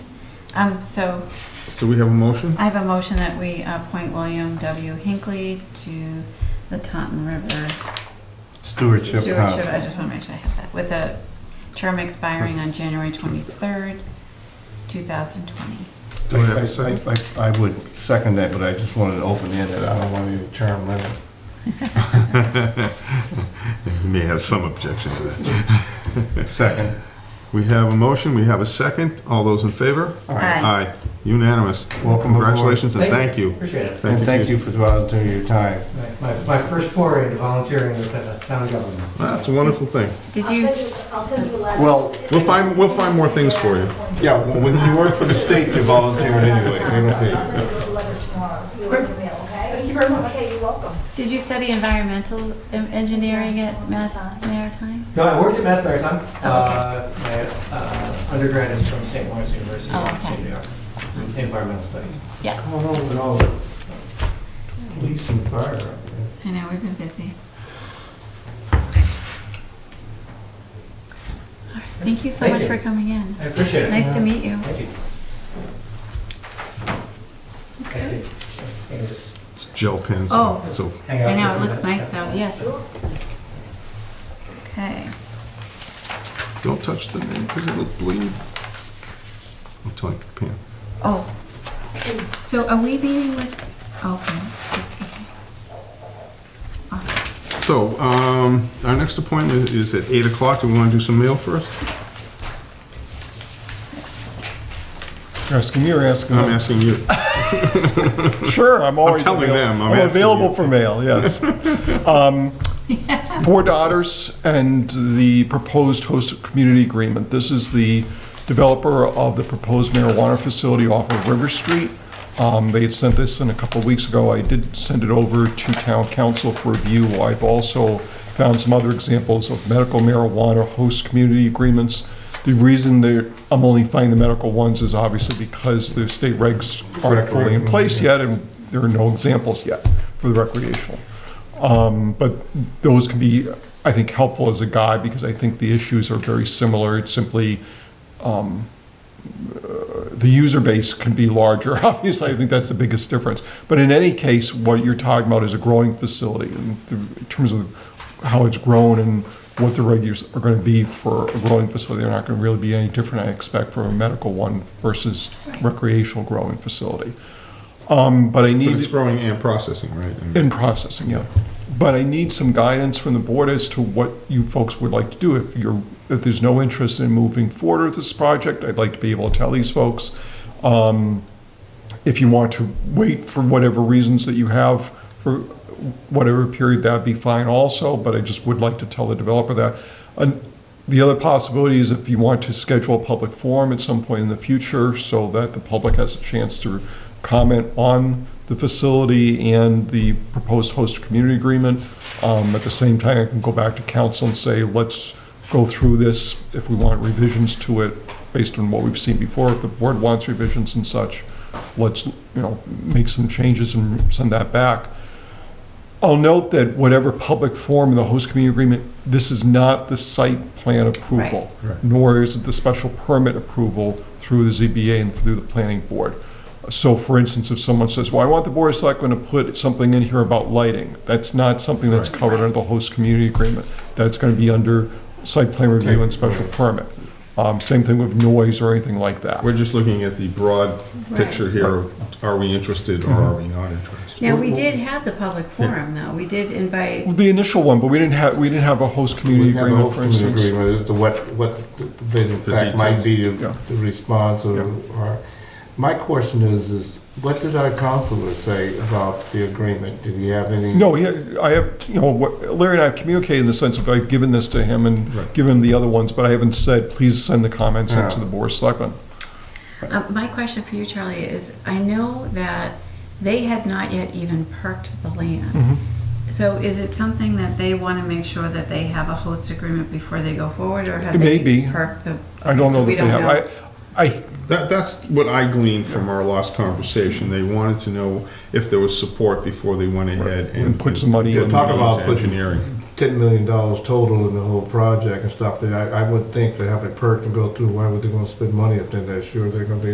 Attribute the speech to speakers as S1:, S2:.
S1: Um, so
S2: So we have a motion?
S1: I have a motion that we appoint William W. Hinckley to the Taunton River
S3: Stewardship
S1: Stewardship. I
S3: Council.
S1: just want to make sure I have that, with a term expiring on January twenty-third, two thousand twenty.
S3: I, I- I- I would second that, but I just wanted to open it, I don't want any term limit.
S2: You may have some objection to that.
S3: Second.
S2: We have a motion, we have a second. All those in favor?
S3: All right.
S2: Aye. Unanimous.
S3: Welcome aboard.
S2: Congratulations and thank you.
S4: Appreciate it.
S3: And thank you for volunteering your time.
S4: My, my first foray into volunteering with the town government.
S2: That's a wonderful thing.
S1: Did
S5: I'll
S1: you,
S5: send you- I'll send you a letter.
S3: Well-
S2: We'll find, we'll find more things for you.
S3: Yeah, well, when you work for the state, you volunteer anyway. They don't
S5: I'll
S3: pay.
S5: send you a letter tomorrow, you will email, okay? Thank you very much. Okay, you're welcome.
S1: did you study environmental em- engineering at Mass Maritime?
S4: No, I worked at Mass Maritime.
S1: Oh, okay.
S4: Uh, My uh, undergrad is from St. Lawrence University,
S1: Oh,
S4: in
S1: okay.
S4: St. New York, in uh, environmental studies.
S3: How long would all the police and fire?
S1: I know, we've been busy. All right, Thank you so
S4: Thank
S1: much
S4: you.
S1: for coming in.
S4: I appreciate it.
S1: Nice to meet you.
S4: Thank you. Thank you. So, I can just
S2: It's gel pens.
S1: Oh.
S2: So
S4: hang out
S1: I
S4: for
S1: know, it
S4: a few
S1: looks nice
S4: minutes.
S1: though, yes. Okay.
S2: don't touch the name because it'll bleed. I'm telling you, Pam.
S1: Oh, so are we meeting with, okay. okay. Awesome.
S2: So, um, our next appointment is at 8 o'clock. Do we want to do some mail first?
S3: Asking you or asking
S2: I'm asking you.
S6: Sure, I'm always.
S2: telling
S6: avail-
S2: them, I'm
S6: I'm
S2: asking you.
S6: available for mail, yes. Um, Four Daughters and the proposed host community agreement. This is the developer of the proposed marijuana facility off of River Street. Um, They had sent this in a couple of weeks ago. I did send it over to town council for review. I've also found some other examples of medical marijuana host community agreements. The reason that I'm only finding the medical ones is obviously because the state regs aren't fully in place yet, and there are no examples yet for the recreational. Um, But those can be, I think, helpful as a guide, because I think the issues are very similar. It's simply, um, uh, the user base can be larger, obviously, I think that's the biggest difference. But in any case, what you're talking about is a growing facility, in th- in terms of how it's grown and what the regulars are gonna be for a growing facility. They're not gonna really be any different, I expect, from a medical one versus recreational growing facility. Um, But I
S2: But
S6: need.
S2: it's growing and processing, right? I mean,
S6: In processing, yeah. But I need some guidance from the board as to what you folks would like to do. If you're, if there's no interest in moving forward with this project, I'd like to be able to tell these folks. Um, If you want to wait for whatever reasons that you have for whatever period, that'd be fine also, but I just would like to tell the developer that. And The other possibility is if you want to schedule a public forum at some point in the future so that the public has a chance to comment on the facility and the proposed host community agreement. Um, At the same time, I can go back to council and say, let's go through this if we want revisions to it based on what we've seen before. If the board wants revisions and such, let's, you know, make some changes and send that back. I'll note that whatever public forum in the host community agreement, this is not the site plan approval,
S2: Right. Right.
S6: nor is it the special permit approval through the ZBA and through the planning board. So for instance, if someone says, well, I want the board of selectmen to put something in here about lighting, that's not something that's
S2: Right.
S6: covered under the host community agreement. That's gonna be under site plan review and special permit. Um, same thing with noise or anything like that.
S2: We're just looking at the broad
S1: Right. Mm-hmm.
S2: picture here of are we interested or are we not interested?
S1: Now, we did have the public forum though, we did invite,
S6: The initial one, but we didn't have, we didn't have a host community
S3: We have a host
S6: agreement, for
S3: community
S6: instance.
S3: agreement, as to what, what, the- in fact, might be
S6: Yeah.
S3: the the response or, or. My question is, is what did our counselor say about the agreement? Did he have any?
S6: No, yeah, I have, you know, what, Larry and I have communicated in the sense of I've given this to him
S2: Right.
S6: and given him the other ones, but I haven't said, please send the comments into
S3: Yeah.
S6: the board of selectmen.
S1: uh, my question for you, Charlie, is I know that they had not yet even perked the land.
S6: Mm-hmm.
S1: So is it something that they want to make sure that they have a host agreement before they go forward or have
S6: It may
S1: they
S6: be.
S1: perked the?
S6: I don't
S1: so
S6: know that
S1: we
S6: they have, I, I,
S2: That, that's what I gleaned from our last conversation. They wanted to know if there was support before they went ahead and.
S6: and put some money
S3: Yeah,
S6: in.
S3: talk about
S2: into
S3: putting-
S2: Engineering.
S3: ten million dollars total in the whole project and stuff, that I, I would think to have it perked and go through, why would they gonna spend money if they're not sure they're gonna be